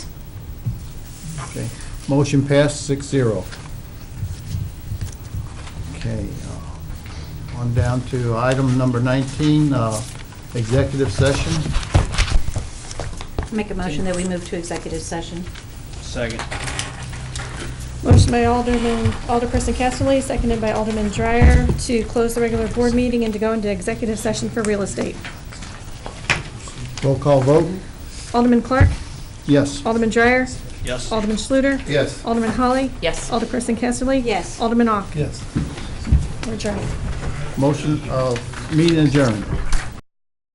Okay, motion passed, six zero. Okay, uh, on down to item number 19, uh, executive session. Make a motion that we move to executive session. Second. Motion by Alderman, Alderperson Casterly, seconded by Alderman Dreyer to close the regular board meeting and to go into executive session for real estate. Roll call vote? Alderman Clark, Yes. Alderman Dreyer, Yes. Alderman Schluter, Yes. Alderman Holly, Yes. Alderperson Casterly. Yes. Alderman Ock. Yes. We're adjourned. Motion, uh, meeting adjourned.